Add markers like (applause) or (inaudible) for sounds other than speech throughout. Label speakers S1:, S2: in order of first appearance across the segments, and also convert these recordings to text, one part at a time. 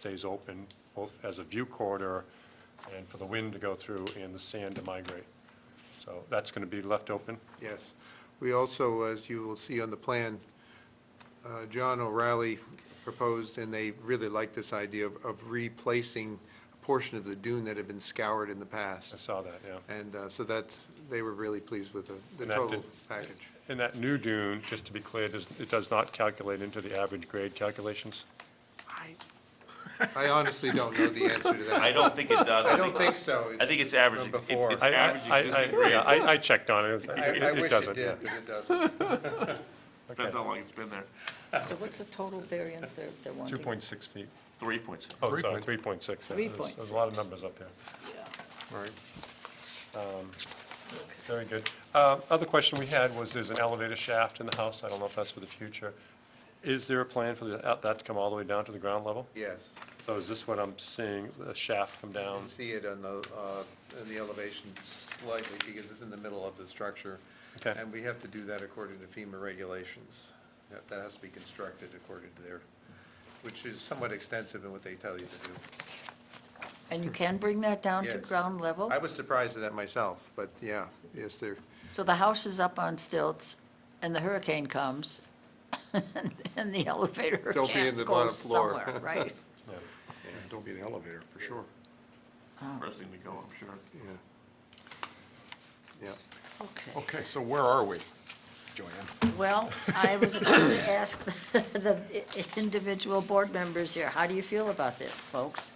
S1: stays open, both as a view corridor and for the wind to go through and the sand to migrate. So that's going to be left open.
S2: Yes. We also, as you will see on the plan, uh, John O'Reilly proposed, and they really liked this idea of of replacing a portion of the dune that had been scoured in the
S1: I
S2: past.
S1: saw that, yeah.
S2: And uh, so that's, they were really pleased with the- the
S1: And that
S2: total
S1: did-
S2: package.
S1: And that new dune, just to be clear, does- it does not calculate into the average grade calculations?
S2: I honestly don't know the answer to that.
S3: (laughs) I don't think it does.
S2: I don't think so.
S3: I think it's average.
S2: From
S3: It's-
S2: before.
S3: it's
S1: I- I-
S3: average
S1: I- I-
S3: existing
S1: yeah,
S3: grade.
S1: I I checked on it. It-
S2: I I
S1: It it
S2: wish
S1: doesn't,
S2: it
S1: yeah.
S2: did, but it doesn't.
S3: Depends how long it's been there.
S4: So what's the total variance they're, they're wanting?
S1: 2.6 feet.
S3: Three points.
S1: Oh, sorry, 3.6. yeah. There's- There's a lot of numbers up here.
S4: Yeah.
S2: Right.
S1: Very good. Uh, Other question we had was, there's an elevator shaft in the house, I don't know if that's for the future. Is there a plan for the- uh, that to come all the way down to the ground level?
S2: Yes.
S1: So Oh, is this what I'm seeing, the shaft come
S2: You
S1: down?
S2: can see it on the, uh, in the elevation slightly, because it's in the middle of the structure.
S1: Okay.
S2: And we have to do that according to FEMA regulations. That that has to be constructed according to their, which is somewhat extensive in what they tell you to do.
S4: And you can bring that down to
S2: Yes.
S4: ground level?
S2: I was surprised at that myself, but yeah, yes, they're,
S4: So the house is up on stilts, and the hurricane comes, (laughs) and the elevator
S2: Don't be in the
S4: shaft
S2: bottom
S4: goes
S2: floor. (laughs)
S4: somewhere, right?
S5: Don't be the elevator, for sure.
S1: Oh.
S3: First thing we go, I'm sure.
S2: yeah. Yeah.
S4: Okay.
S5: Okay, so where are we, Joanne?
S4: Well, I was about to ask (laughs) the individual board members here, how do you feel about this, folks?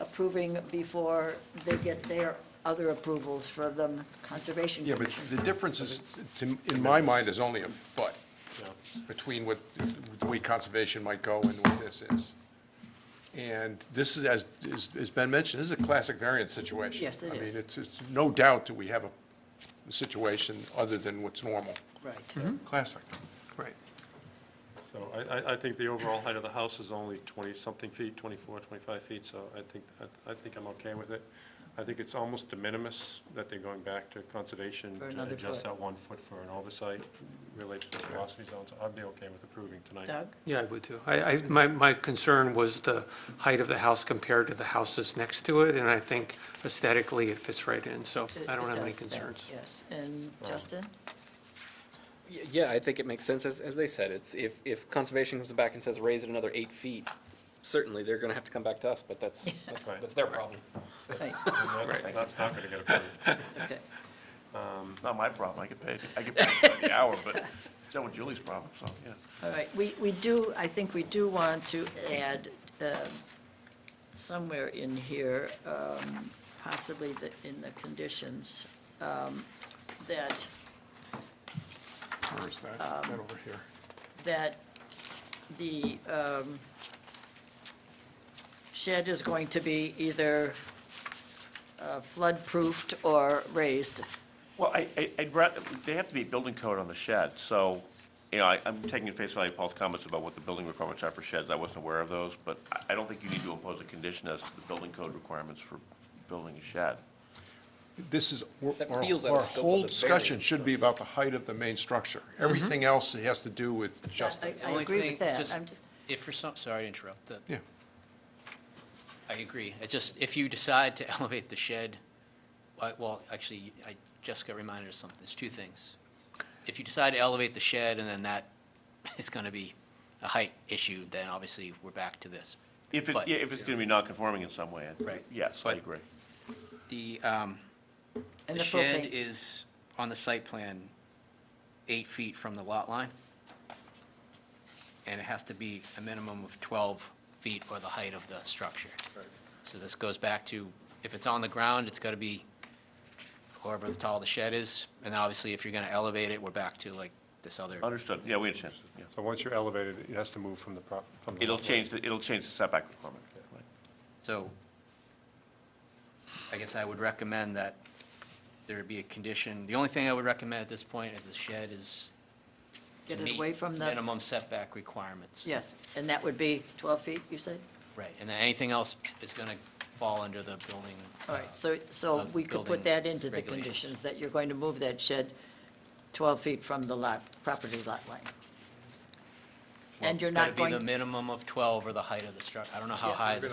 S4: Approving before they get their other approvals for the Conservation
S5: Yeah,
S4: Commission?
S5: but the difference is, to- in my mind, is only a foot between what, the way conservation might go and what this is. And this is, as is- has been mentioned, this is a classic variance situation.
S4: Yes, it
S5: I
S4: is.
S5: mean, it's, it's no doubt that we have a situation other than what's normal.
S4: Right.
S5: Classic.
S2: Right.
S1: So I- I, I think the overall height of the house is only 20-something feet, 24, 25 feet, so I think, I- I think I'm okay with it. I think it's almost de minimis that they're going back to conservation
S4: For
S1: to
S4: another
S1: adjust
S4: foot.
S1: that one foot for an oversight related to the velocity zones. I'd be okay with approving tonight.
S4: Doug?
S6: Yeah, I would too. I, I, my, my concern was the height of the house compared to the houses next to it, and I think aesthetically it fits right in, so
S4: It-
S6: I don't
S4: it
S6: have any
S4: does that,
S6: concerns.
S4: Yes, and Justin?
S7: Y- Yeah, I think it makes sense, as, as they said, it's, if, if conservation comes back and says raise it another eight feet, certainly, they're gonna have to come back to us, but that's, that's,
S1: Right.
S7: that's their problem.
S4: Right,
S1: And that- That's not going to get approved.
S4: okay.
S3: It's not my problem. I get paid, I get paid by
S1: (laughs)
S3: the hour, but it's Joe and Julie's problem, so, yeah.
S4: All right, we, we do, I think we do want to add um, somewhere in here, um, possibly the- in the conditions, um, that, um,
S5: Where is that? That over here.
S4: that the um, shed is going to be either uh, flood-proofed or raised.
S3: Well, I, I- I'd rather, they have to be building code on the shed, so, you know, I, I'm taking at face value Paul's comments about what the building requirements are for sheds. I wasn't aware of those, but I, I don't think you need to impose a condition as to the building code requirements for building a shed.
S5: This is,
S7: That
S5: our,
S7: feels out
S5: our
S7: of scope of
S5: whole
S7: the
S5: discussion
S7: variance, Mm-hmm.
S5: should be about the height of the main structure. Everything else has to do with
S4: I-
S5: justice.
S4: I
S8: Only
S4: agree
S8: thing-
S4: with that.
S8: just
S4: I'm-
S8: If for some, sorry to interrupt, that,
S5: Yeah.
S8: I agree. It's just, if you decide to (laughs) elevate the shed, I- well, actually, I just got reminded of something, there's two things. If you decide to elevate the shed and then that (laughs) is gonna be a height issue, then obviously we're back to this.
S3: If it,
S8: But-
S3: yeah, if it's gonna be non-conforming in some way, I-
S8: Right.
S3: yes, I
S8: But-
S3: agree.
S8: The, um,
S4: And the
S8: the shed
S4: propane.
S8: is on the site plan, eight feet from the lot line. And it has to be a minimum of 12 feet or the height of the structure. So this goes back to, if it's on the ground, it's got to be however tall the shed is. And then obviously, if you're going to elevate it, we're back to like this other,
S3: Understood. Yeah, we understand. Yeah.
S1: So once you're elevated, it has to move from the prop, from the.
S3: It'll
S1: lot
S3: change, the- it'll change the setback requirement. Right.
S8: so I guess I would recommend that there be a condition. The only thing I would recommend at this point is the shed is
S4: Get
S8: to
S4: it away
S8: meet
S4: from the.
S8: Minimum setback requirements.
S4: Yes, and that would be 12 feet, you said?
S8: Right, and then anything else is going to fall under the building.
S4: All right, so, so
S8: Of
S4: we could put
S8: building
S4: that into the
S8: regulations.
S4: conditions, that you're going to move that shed 12 feet from the lot, property lot line.
S8: Well,
S4: And
S8: it's
S4: you're
S8: gotta
S4: not going
S8: be the minimum of 12 or the height of the structure. I don't know how
S4: Yeah.
S8: high
S2: We're
S8: the